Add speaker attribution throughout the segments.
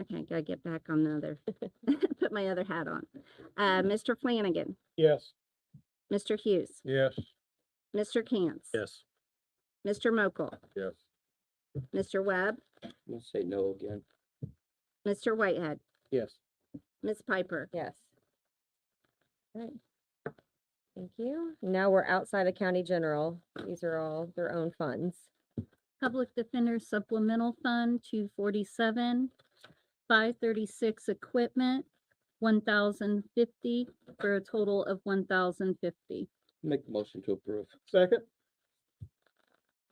Speaker 1: Okay, gotta get back on the other, put my other hat on. Uh,
Speaker 2: Mm-hmm.
Speaker 1: Mr. Flanagan,
Speaker 3: Yes.
Speaker 1: Mr. Hughes,
Speaker 3: Yes.
Speaker 1: Mr. Cantz.
Speaker 3: Yes.
Speaker 1: Mr. Mokel,
Speaker 3: Yes.
Speaker 1: Mr. Webb,
Speaker 4: I'm gonna say no again.
Speaker 1: Mr. Whitehead,
Speaker 3: Yes.
Speaker 1: Ms. Piper.
Speaker 2: Yes. Right. Thank you. Now we're outside of county general. These are all their own funds.
Speaker 5: Public Defender Supplemental Fund, two forty-seven, five thirty-six equipment, one thousand fifty, for a total of one thousand fifty.
Speaker 4: Make the motion to approve.
Speaker 3: Second.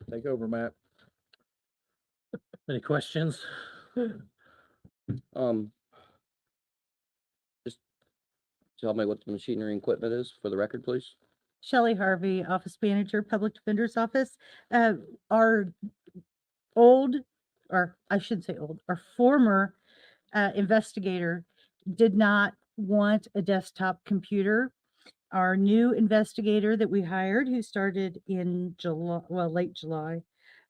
Speaker 3: Take over, Matt.
Speaker 6: Any questions?
Speaker 4: Um. Just tell me what the machinery and equipment is for the record, please.
Speaker 7: Shelley Harvey, Office Manager, Public Defender's Office. Uh, Our old, or I shouldn't say old, our former uh, investigator did not want a desktop computer. Our new investigator that we hired, who started in July, well, late July,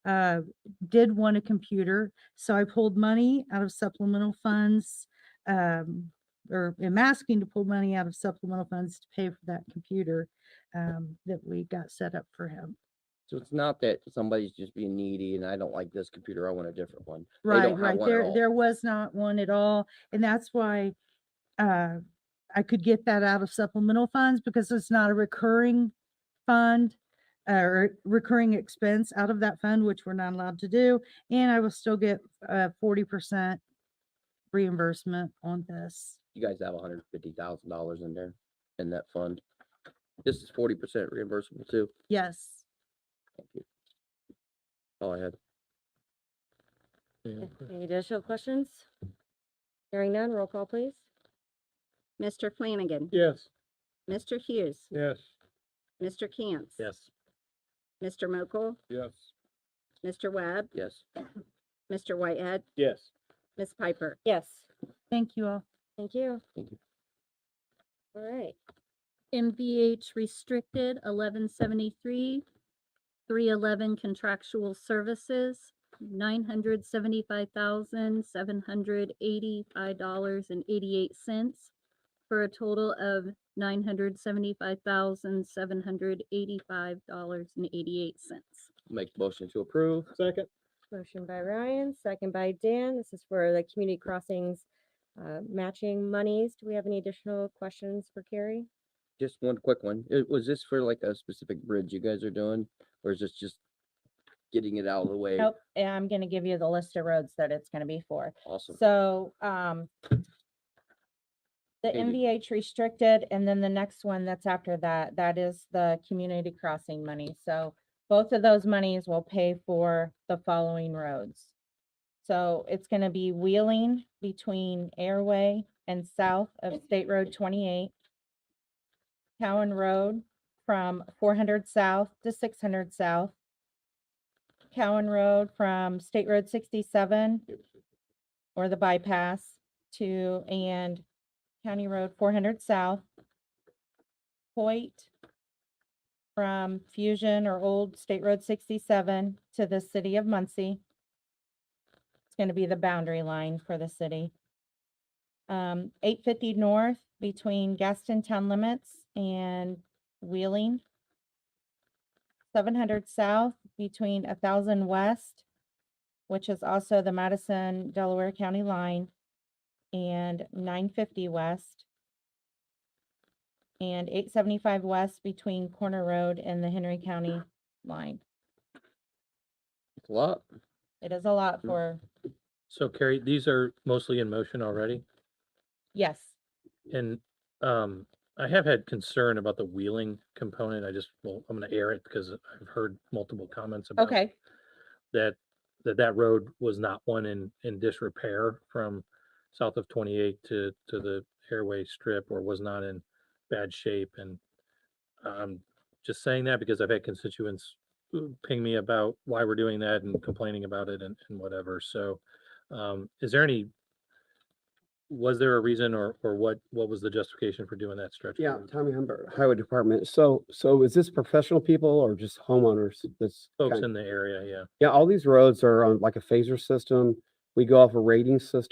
Speaker 7: uh, did want a computer. So I pulled money out of supplemental funds, um, or am asking to pull money out of supplemental funds to pay for that computer um, that we got set up for him.
Speaker 4: So it's not that somebody's just being needy and I don't like this computer, I want a different one. They don't
Speaker 7: Right,
Speaker 4: have
Speaker 7: right.
Speaker 4: one at
Speaker 7: There,
Speaker 4: all.
Speaker 7: there was not one at all. And that's why, uh, I could get that out of supplemental funds because it's not a recurring fund uh, or recurring expense out of that fund, which we're not allowed to do. And I will still get, uh, forty percent reimbursement on this.
Speaker 4: You guys have hundred fifty thousand dollars in there in that fund. This is forty percent reimbursable too.
Speaker 7: Yes.
Speaker 4: Thank you. All I had.
Speaker 2: Okay, Any additional questions? Hearing none, roll call please.
Speaker 1: Mr. Flanagan,
Speaker 3: Yes.
Speaker 1: Mr. Hughes,
Speaker 3: Yes.
Speaker 1: Mr. Cantz.
Speaker 6: Yes.
Speaker 1: Mr. Mokel,
Speaker 3: Yes.
Speaker 1: Mr. Webb,
Speaker 4: Yes.
Speaker 1: Mr. Whitehead,
Speaker 3: Yes.
Speaker 1: Ms. Piper.
Speaker 2: Yes.
Speaker 7: Thank you all.
Speaker 2: Thank you.
Speaker 4: Thank you.
Speaker 2: All right,
Speaker 5: MVH restricted, eleven seventy-three, three eleven contractual services, nine hundred seventy-five thousand, seven hundred eighty-five dollars and eighty-eight cents, for a total of nine hundred seventy-five thousand, seven hundred eighty-five dollars and eighty-eight cents.
Speaker 4: Make the motion to approve.
Speaker 3: Second.
Speaker 2: motion by Ryan, second by Dan. This is for the community crossings uh, matching monies. Do we have any additional questions for Carrie?
Speaker 4: Just one quick one. It, was this for like a specific bridge you guys are doing, or is this just getting it out of the way?
Speaker 8: Nope, and I'm gonna give you the list of roads that it's gonna be for.
Speaker 4: Awesome.
Speaker 8: So, um, the
Speaker 4: Okay, do-
Speaker 8: MVH restricted, and then the next one that's after that, that is the community crossing money. So both of those monies will pay for the following roads. So it's gonna be wheeling between Airway and south of State Road twenty-eight. Cowan Road from four hundred south to six hundred south. Cowan Road from State Road sixty-seven or the bypass to and County Road four hundred south. Point from Fusion or Old State Road sixty-seven to the city of Muncie. It's gonna be the boundary line for the city. Um, eight fifty north between Gaston Town Limits and Wheeling. Seven hundred south between a thousand west which is also the Madison Delaware County line, and nine fifty west, and eight seventy-five west between Corner Road and the Henry County line.
Speaker 4: It's a lot.
Speaker 8: It is a lot
Speaker 4: Mm.
Speaker 8: for,
Speaker 6: So Carrie, these are mostly in motion already,
Speaker 8: yes,
Speaker 6: and um, I have had concern about the wheeling component. I just, well, I'm gonna air it because I've heard multiple comments about
Speaker 8: okay,
Speaker 6: that that that road was not one in in disrepair from south of 28 to to the airway strip or was not in bad shape and i'm just saying that because i've had constituents who ping me about why we're doing that and complaining about it and, and whatever so um is there any was there a reason or or what what was the justification for doing that stretch of
Speaker 9: Yeah,
Speaker 6: road?
Speaker 9: Tommy Humbert, Highway Department. So, so is this professional people or just homeowners? That's
Speaker 6: folks
Speaker 9: kind-
Speaker 6: in the area yeah
Speaker 9: yeah, all these roads are on like a phaser system. We go off a rating system.